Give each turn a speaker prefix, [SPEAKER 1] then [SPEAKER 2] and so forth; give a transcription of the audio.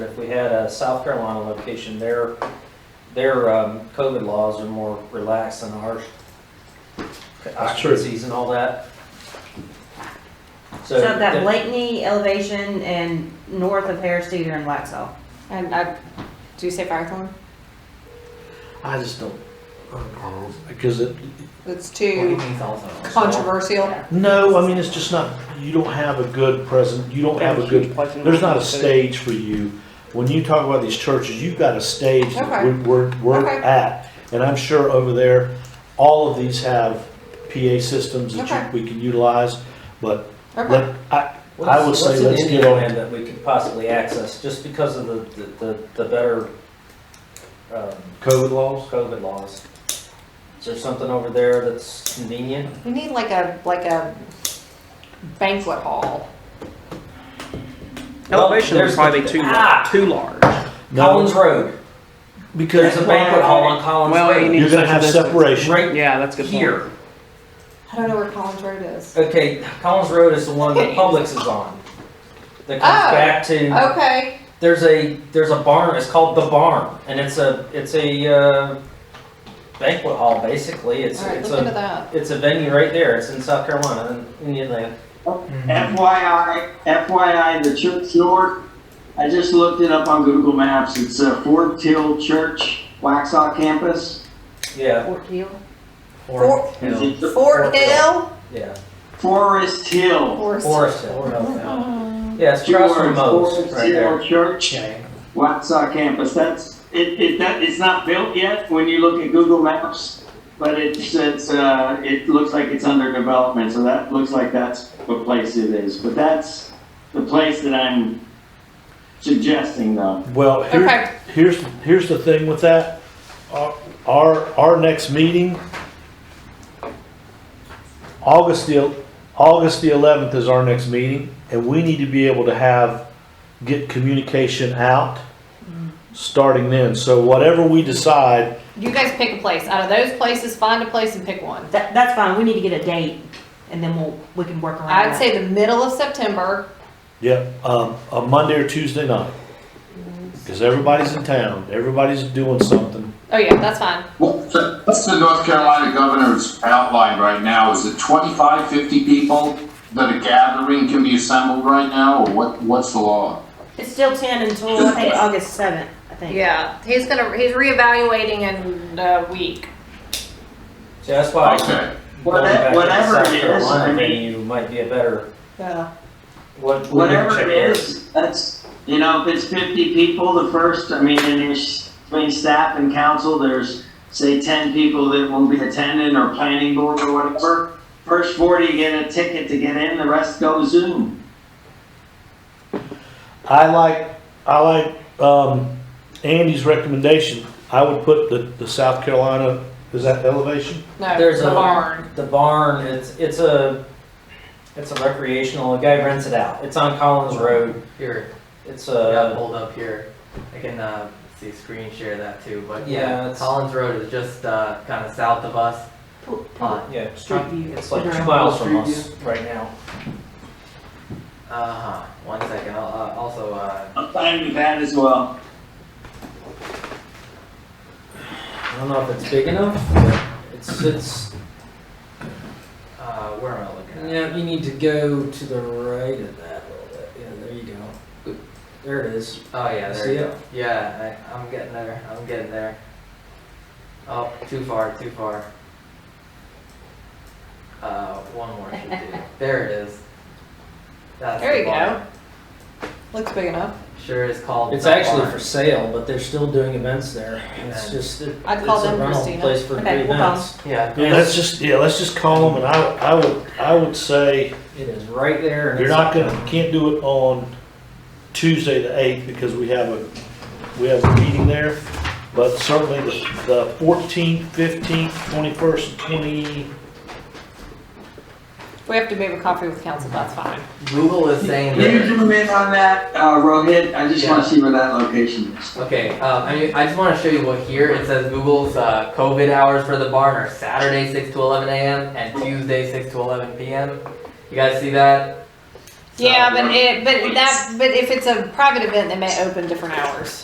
[SPEAKER 1] If we had a South Carolina location, their, their um, COVID laws are more relaxed than ours.
[SPEAKER 2] true.
[SPEAKER 1] Occupancies and all that.
[SPEAKER 3] So that
[SPEAKER 1] the-
[SPEAKER 3] Blakeney elevation and north of Harris Teeter and Waxaw.
[SPEAKER 4] And I, do you say Firethorn?
[SPEAKER 2] I just don't, I don't know, because it,
[SPEAKER 4] It's
[SPEAKER 5] What do you
[SPEAKER 4] too
[SPEAKER 5] mean it's also on sale?
[SPEAKER 4] controversial.
[SPEAKER 2] no, I mean, it's just not, you don't have a good present, you don't have a good, there's not a stage for you. When you talk about these churches, you've got a stage that
[SPEAKER 4] Okay.
[SPEAKER 2] we're, we're, we're
[SPEAKER 4] Okay.
[SPEAKER 2] at. And I'm sure over there, all of these have PA systems
[SPEAKER 4] Okay.
[SPEAKER 2] that you, we can utilize, but
[SPEAKER 4] Okay.
[SPEAKER 2] let, I,
[SPEAKER 1] what's-
[SPEAKER 2] I would say
[SPEAKER 1] what's in
[SPEAKER 2] let's get
[SPEAKER 1] Indiana
[SPEAKER 2] on-
[SPEAKER 1] That we could possibly access, just because of the, the- the, the better um,
[SPEAKER 2] COVID laws,
[SPEAKER 1] COVID laws. Is there something over there that's convenient?
[SPEAKER 4] We need like a, like a banquet hall.
[SPEAKER 6] Elevation
[SPEAKER 1] Well,
[SPEAKER 6] would
[SPEAKER 1] there's
[SPEAKER 6] probably
[SPEAKER 1] the-
[SPEAKER 6] be too,
[SPEAKER 1] Ah!
[SPEAKER 6] lar- too large.
[SPEAKER 1] Collins
[SPEAKER 2] no,
[SPEAKER 1] Road,
[SPEAKER 2] because
[SPEAKER 1] there's a banquet hall on Collins
[SPEAKER 6] Well, you
[SPEAKER 1] Road.
[SPEAKER 6] need-
[SPEAKER 2] you're gonna have
[SPEAKER 6] Social
[SPEAKER 2] separation.
[SPEAKER 1] Right
[SPEAKER 6] Yeah, that's a good. point.
[SPEAKER 1] here.
[SPEAKER 4] I don't know where Collins Road is.
[SPEAKER 1] Okay, Collins Road is the one that Publix is on. That comes
[SPEAKER 4] Oh.
[SPEAKER 1] back to,
[SPEAKER 4] Okay,
[SPEAKER 1] there's a, there's a barn, it's called The Barn, and it's a, it's a uh, banquet hall, basically, it's,
[SPEAKER 4] all right,
[SPEAKER 1] it's
[SPEAKER 4] look into
[SPEAKER 1] a,
[SPEAKER 4] that.
[SPEAKER 1] it's a venue right there, it's in South Carolina, in Indian Land.
[SPEAKER 2] Mm-hmm.
[SPEAKER 7] FYI, FYI, the church north, I just looked it up on Google Maps. It's uh, Fort Hill Church, Waxhaw campus.
[SPEAKER 1] Yeah,
[SPEAKER 3] Fort Hill.
[SPEAKER 4] Fort,
[SPEAKER 7] Is it the
[SPEAKER 4] Fort Hill?
[SPEAKER 1] yeah,
[SPEAKER 7] Forest Hill?
[SPEAKER 4] Forest.
[SPEAKER 1] Forest Hill, yeah, it's
[SPEAKER 7] Two
[SPEAKER 1] across from
[SPEAKER 7] words,
[SPEAKER 1] Moe's,
[SPEAKER 7] Forest
[SPEAKER 1] right
[SPEAKER 7] Hill
[SPEAKER 1] there.
[SPEAKER 7] Church,
[SPEAKER 5] Okay.
[SPEAKER 7] Waxhaw campus. That's it. it that, it's not built yet when you look at Google Maps, but it's it's uh, it looks like it's under development. So that looks like that's what place it is. But that's the place that I'm suggesting, though.
[SPEAKER 2] Well, here,
[SPEAKER 4] Okay.
[SPEAKER 2] here's, here's the thing with that. Our- Our, our next meeting, August the, el- August the eleventh is our next meeting, and we need to be able to have, get communication out starting then. So whatever we decide,
[SPEAKER 4] You guys pick a place. Out of those places, find a place and pick one.
[SPEAKER 3] That, that's fine, we need to get a date and then we'll, we can work around
[SPEAKER 4] I'd
[SPEAKER 3] that.
[SPEAKER 4] say the middle of September.
[SPEAKER 2] yeah, um, a Monday or Tuesday night. Cause everybody's in town, everybody's doing something.
[SPEAKER 4] Oh yeah, that's fine.
[SPEAKER 8] Well, That's the North Carolina governor's outline right now. Is it 25, 50 people that a gathering can be assembled right now, or what, what's the law?
[SPEAKER 3] It's still ten until, I think, August seventh, I think.
[SPEAKER 4] Yeah, he's gonna, he's reevaluating in a week.
[SPEAKER 1] See, that's why.
[SPEAKER 8] Okay,
[SPEAKER 1] going back to
[SPEAKER 7] Whatever
[SPEAKER 1] South
[SPEAKER 7] it is,
[SPEAKER 1] Carolina
[SPEAKER 7] I mean-
[SPEAKER 1] venue might be a better,
[SPEAKER 4] Yeah.
[SPEAKER 1] what. we can
[SPEAKER 7] whatever
[SPEAKER 1] check
[SPEAKER 7] it
[SPEAKER 1] there.
[SPEAKER 7] is, that's, you know, if it's fifty people, the first, I mean, and there's, between staff and council, there's, say, ten people that will be attending or planning board or whatever. First forty get a ticket to get in, the rest go Zoom.
[SPEAKER 2] I like, I like, um, Andy's recommendation. I would put the, the South Carolina, is that elevation?
[SPEAKER 4] No,
[SPEAKER 1] There's
[SPEAKER 4] the
[SPEAKER 1] a-
[SPEAKER 4] barn.
[SPEAKER 1] The barn, it's, it's a, it's a recreational, a guy rents it out. It's on Collins Road.
[SPEAKER 5] Here,
[SPEAKER 1] It's
[SPEAKER 5] yeah,
[SPEAKER 1] a,
[SPEAKER 5] hold up here. I can, uh, see, screen share that too, but
[SPEAKER 1] Yeah,
[SPEAKER 5] yeah,
[SPEAKER 1] it's-
[SPEAKER 5] Collins Road is just, uh, kinda south of us.
[SPEAKER 3] Pu-
[SPEAKER 5] Uh,
[SPEAKER 3] pu-
[SPEAKER 1] yeah,
[SPEAKER 3] Street view.
[SPEAKER 1] it's like two miles from us right now.
[SPEAKER 5] uh-huh, one second, I'll, uh, also, uh,
[SPEAKER 7] I'm fine with that as well.
[SPEAKER 1] I don't know if it's big enough, but it's, it's,
[SPEAKER 5] uh, where am I looking at?
[SPEAKER 1] yeah, you need to go to the right of that a little bit. Yeah, there you go. There it is.
[SPEAKER 5] Oh, yeah, there
[SPEAKER 1] See
[SPEAKER 5] you
[SPEAKER 1] it?
[SPEAKER 5] go. Yeah, I, I'm getting there, I'm getting there. Oh, too far, too far. Uh, one more should do. There it is. That's
[SPEAKER 4] There
[SPEAKER 5] the
[SPEAKER 4] you
[SPEAKER 5] barn.
[SPEAKER 4] go. Looks big enough.
[SPEAKER 5] Sure is called.
[SPEAKER 1] It's
[SPEAKER 5] the
[SPEAKER 1] actually
[SPEAKER 5] barn.
[SPEAKER 1] for sale, but they're still doing events there. It's just, it-
[SPEAKER 4] I'd
[SPEAKER 1] it's
[SPEAKER 4] call
[SPEAKER 1] a
[SPEAKER 4] them,
[SPEAKER 1] rental
[SPEAKER 4] Christina.
[SPEAKER 1] place for
[SPEAKER 3] Okay, we'll call
[SPEAKER 1] events.
[SPEAKER 5] Yeah.
[SPEAKER 2] Yeah, let's just, yeah, let's just call them, and I, I would, I would say,
[SPEAKER 1] It is right there. and
[SPEAKER 2] you're
[SPEAKER 1] it's-
[SPEAKER 2] not gonna, can't do it on Tuesday the eighth, because we have a, we have a meeting there, but certainly the, the fourteenth, fifteenth, twenty-first, twenty,
[SPEAKER 4] We have to move a coffee with council, that's fine.
[SPEAKER 5] Google is saying
[SPEAKER 7] You
[SPEAKER 5] that.
[SPEAKER 7] zoom in on that, uh, Rohit, I just wanna
[SPEAKER 5] Yeah.
[SPEAKER 7] see where that location is.
[SPEAKER 5] Okay, uh, I mean, I just want to show you what here it says. Google's uh, COVID hours for the barn are Saturday six to eleven a.m. and Tuesday six to eleven p.m. You guys see that?
[SPEAKER 4] Yeah, but it, but that, but if it's a private event, they may open different hours.